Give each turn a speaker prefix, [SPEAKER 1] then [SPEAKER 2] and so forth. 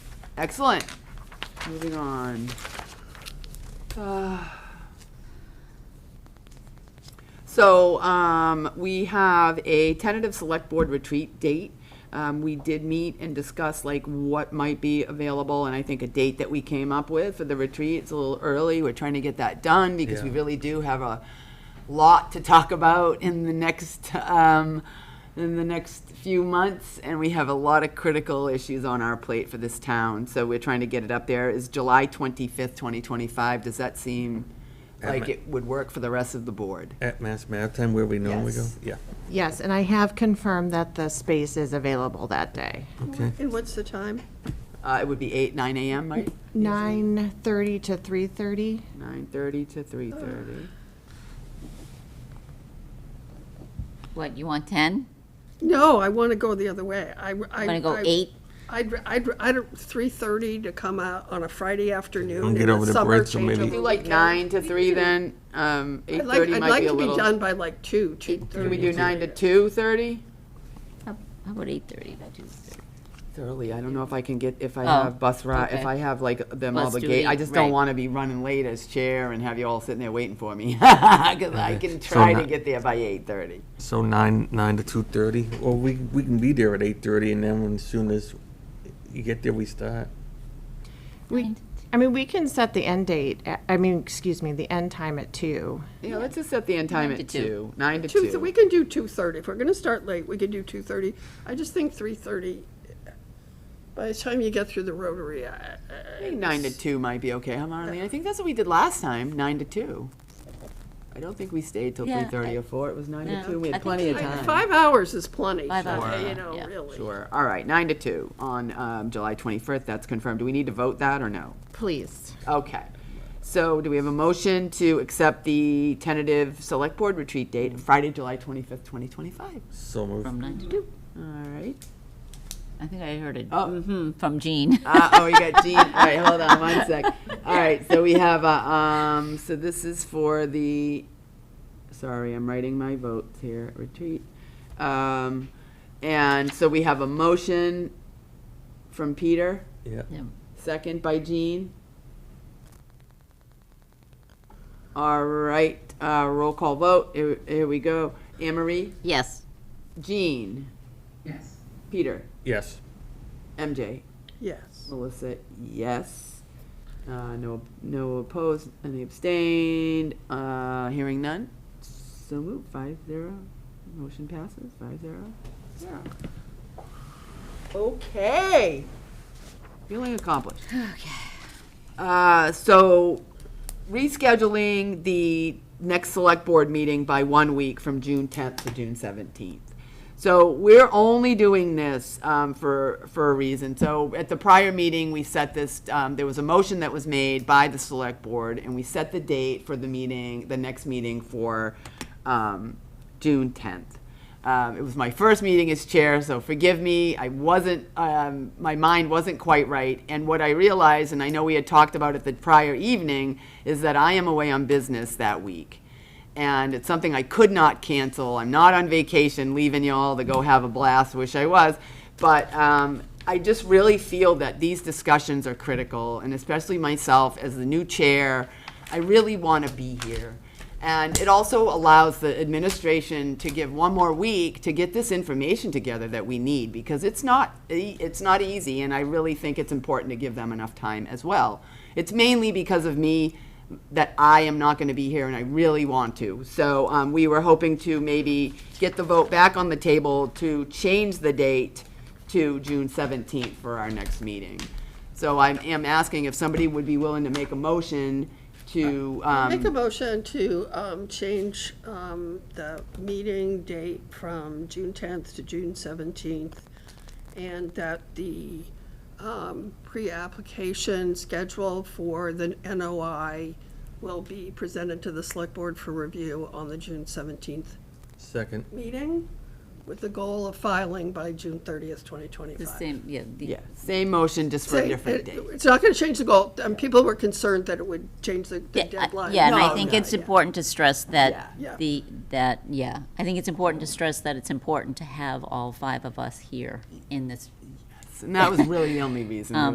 [SPEAKER 1] Excellent. Moving on. Uh, So, um, we have a tentative select board retreat date. Um, we did meet and discuss like what might be available, and I think a date that we came up with for the retreat, it's a little early, we're trying to get that done, because we
[SPEAKER 2] Yeah.
[SPEAKER 1] really do have a lot to talk about in the next, um, in the next few months, and we have a lot of critical issues on our plate for this town, so we're trying to get it up there. Is July twenty-fifth, twenty twenty-five, does that seem like
[SPEAKER 2] Admin.
[SPEAKER 1] it would work for the rest of the board?
[SPEAKER 2] At Mass Maritime, where we normally go?
[SPEAKER 1] Yes.
[SPEAKER 2] Yeah,
[SPEAKER 3] Yes, and I have confirmed that the space is available that day.
[SPEAKER 2] okay.
[SPEAKER 4] And what's the time?
[SPEAKER 1] Uh, it would be eight, nine AM, right?
[SPEAKER 3] Nine thirty to three thirty.
[SPEAKER 1] Nine thirty to three thirty.
[SPEAKER 5] What, you want 10?
[SPEAKER 4] No, I want to go the other way. I, I.
[SPEAKER 5] I'm going to go
[SPEAKER 4] I-
[SPEAKER 5] 8?
[SPEAKER 4] I'd, I'd, I'd, three thirty to come out on a Friday afternoon.
[SPEAKER 2] Don't get
[SPEAKER 4] in the
[SPEAKER 2] over the
[SPEAKER 4] summer,
[SPEAKER 2] bread so
[SPEAKER 4] change
[SPEAKER 2] many-
[SPEAKER 4] over
[SPEAKER 1] Do like
[SPEAKER 4] the
[SPEAKER 1] nine to three then, um, eight
[SPEAKER 4] I'd like,
[SPEAKER 1] thirty
[SPEAKER 4] I'd
[SPEAKER 1] might
[SPEAKER 4] like
[SPEAKER 1] be a
[SPEAKER 4] to be done
[SPEAKER 1] little.
[SPEAKER 4] by like two, two
[SPEAKER 1] Can
[SPEAKER 4] thirty.
[SPEAKER 1] we do nine to two thirty?
[SPEAKER 5] How how about 8:30? About 2:30.
[SPEAKER 1] Early, I don't know if I can get, if I
[SPEAKER 5] Oh,
[SPEAKER 1] have bus ride, if
[SPEAKER 5] okay.
[SPEAKER 1] I have like them
[SPEAKER 5] Let's do
[SPEAKER 1] obligate, I
[SPEAKER 5] eight,
[SPEAKER 1] just don't
[SPEAKER 5] right.
[SPEAKER 1] wanna be running late as chair and have you all sitting there waiting for me. Cause I
[SPEAKER 2] Okay,
[SPEAKER 1] can
[SPEAKER 2] so
[SPEAKER 1] try to
[SPEAKER 2] not-
[SPEAKER 1] get there by eight thirty.
[SPEAKER 2] So nine, nine to two thirty, or we, we can be there at eight thirty, and then when- as soon as you get there, we start.
[SPEAKER 3] We, I mean, we can set the end date, at- I mean, excuse me, the end time at two.
[SPEAKER 1] Yeah, let's just set the end time
[SPEAKER 5] Nine to
[SPEAKER 1] at
[SPEAKER 5] two.
[SPEAKER 1] two, nine to
[SPEAKER 4] Two, so we
[SPEAKER 1] two.
[SPEAKER 4] can do two thirty. If we're gonna start late, we could do two thirty. I just think three thirty, by the time you get through the rotary, I. I-
[SPEAKER 1] I think Nine to two might be okay, huh, Marlene? I think that's what we did last time, nine to two. I don't think we stayed till
[SPEAKER 5] Yeah,
[SPEAKER 1] three thirty
[SPEAKER 5] I-
[SPEAKER 1] or four, it was nine to
[SPEAKER 5] No,
[SPEAKER 1] two, we
[SPEAKER 5] I
[SPEAKER 1] had
[SPEAKER 5] think
[SPEAKER 1] plenty of
[SPEAKER 5] I-
[SPEAKER 1] time.
[SPEAKER 4] Five hours is plenty,
[SPEAKER 5] Five
[SPEAKER 4] so,
[SPEAKER 5] hours,
[SPEAKER 4] you know,
[SPEAKER 5] yeah.
[SPEAKER 4] really.
[SPEAKER 1] Sure, all right, nine to two on um, July 25th, that's confirmed. Do we need to vote that or no?
[SPEAKER 3] Please.
[SPEAKER 1] Okay. So do we have a motion to accept the tentative select board retreat date, Friday, July 25th, 2025?
[SPEAKER 2] So moved.
[SPEAKER 5] From 9 to 2?
[SPEAKER 1] All right.
[SPEAKER 5] I think I heard it.
[SPEAKER 1] Oh.
[SPEAKER 5] Mhm, from Jean.
[SPEAKER 1] Uh, Oh, you got Jean, all right, hold on one sec. All right, so we have, uh, um, so this is for the, sorry, I'm writing my votes here, retreat. Um, And so we have a motion from Peter.
[SPEAKER 2] Yeah,
[SPEAKER 5] Yeah.
[SPEAKER 1] Second by Jean. All right, uh, roll call vote. Here, here we go. Anne Marie,
[SPEAKER 5] Yes.
[SPEAKER 1] Jean. Yes. Peter,
[SPEAKER 2] yes.
[SPEAKER 1] MJ,
[SPEAKER 4] Yes.
[SPEAKER 1] Melissa, yes. Uh, no, no opposed, any abstained. Uh, hearing none. So moved, five zero. Motion passes, five zero. Zero.
[SPEAKER 4] Okay.
[SPEAKER 1] Feeling accomplished. Okay. Uh, so rescheduling the next select board meeting by one week from June tenth to June seventeenth. So we're only doing this, um, for, for a reason. So at the prior meeting, we set this, um, there was a motion that was made by the select board and we set the date for the meeting, the next meeting for, um, June tenth. Um, it was my first meeting as chair, so forgive me. I wasn't, um, my mind wasn't quite right. And what I realized, and I know we had talked about it the prior evening, is that I am away on business that week. And it's something I could not cancel. I'm not on vacation, leaving y'all to go have a blast. Wish I was. But um, I just really feel that these discussions are critical, and especially myself as the new chair, I really want to be here. And it also allows the administration to give one more week to get this information together that we need because it's not e- it's not easy and I really think it's important to give them enough time as well. It's mainly because of me that I am not going to be here and I really want to. So um, we were hoping to maybe get the vote back on the table to change the date to June 17th for our next meeting. So I am asking if somebody would be willing to make a motion to um,
[SPEAKER 4] Make a motion to um, change um, the meeting date from June 10th to June 17th, and that the um, pre-application schedule for the NOI will be presented to the Select Board for review on the June 17th
[SPEAKER 2] Second,
[SPEAKER 4] meeting, with the goal of filing by June 30th,
[SPEAKER 5] The
[SPEAKER 4] 2025.
[SPEAKER 5] same, yeah. the-
[SPEAKER 1] Yeah, same motion, just for a
[SPEAKER 4] Say
[SPEAKER 1] different
[SPEAKER 4] it-
[SPEAKER 1] date.
[SPEAKER 4] It's not going to change the goal, and people were concerned that it would change the the
[SPEAKER 5] Yeah, I-
[SPEAKER 4] deadline.
[SPEAKER 5] yeah, and
[SPEAKER 1] No,
[SPEAKER 5] I think
[SPEAKER 1] no,
[SPEAKER 5] it's important to stress that
[SPEAKER 4] Yeah. Yeah.
[SPEAKER 5] the, that, yeah. I think it's important to stress that it's important to have all five of us here in this
[SPEAKER 1] And that was really the only reason.